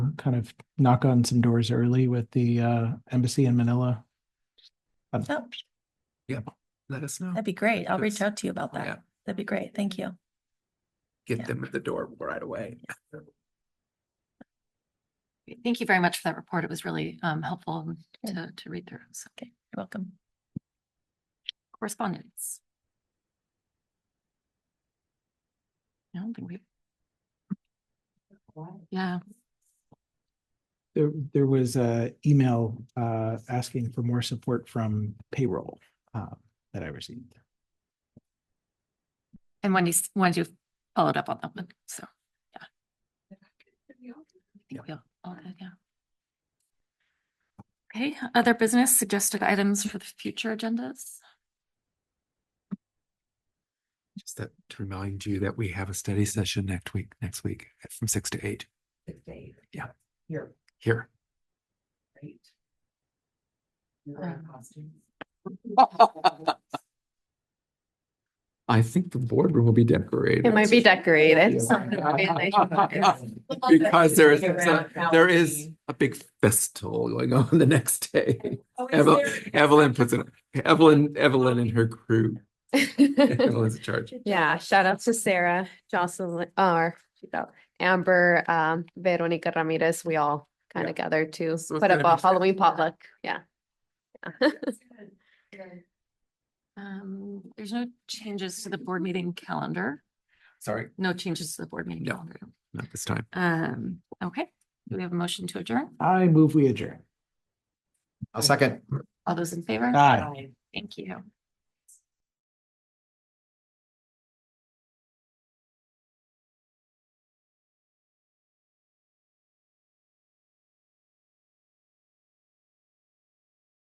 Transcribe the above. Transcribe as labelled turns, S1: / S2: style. S1: kind of knock on some doors early with the uh, embassy in Manila.
S2: Oh,
S3: Let us know.
S2: that'd be great. I'll reach
S3: Yes.
S2: out to you about
S3: Yeah.
S2: that. That'd be great. Thank you. yeah.
S3: Get them at the door right away.
S4: Thank you very much for that report. It was really um helpful to to read through. So
S2: Okay, you're welcome.
S4: correspondence. I don't think we. Yeah,
S1: There, there was a email uh, asking for more support from payroll uh, that I received.
S4: and Wendy, s- Wendy followed up on that one, so, yeah. I think we all- all did, yeah. Okay, other business suggested items for the future agendas?
S3: Just that to remind you that we have a study session next week, next week from six to eight
S5: six to eight.
S3: Yeah.
S5: Here,
S3: here.
S5: right? You're wearing costumes.
S3: I think the boardroom will be decorated.
S6: It might be decorated.
S3: Because there is, there is a big festival going on the next day. Evelyn, Evelyn puts it, Evelyn, Evelyn and her crew. Evelyn's in charge.
S6: Yeah, shout out to Sarah, Jocelyn, or she's out, Amber, um, Veronica Ramirez. We all kind
S3: Yeah.
S6: of gathered to
S3: So it's
S6: put up
S3: gonna
S6: a
S3: be-
S6: Halloween potluck. Yeah.
S4: Um, there's no changes to the board meeting calendar,
S3: Sorry,
S4: no changes to the board meeting
S3: No.
S4: calendar.
S3: not this time.
S4: Um, okay, do we have a motion to adjourn?
S1: I move we adjourn.
S3: A second.
S4: All those in favor?
S1: Aye.
S4: Thank you.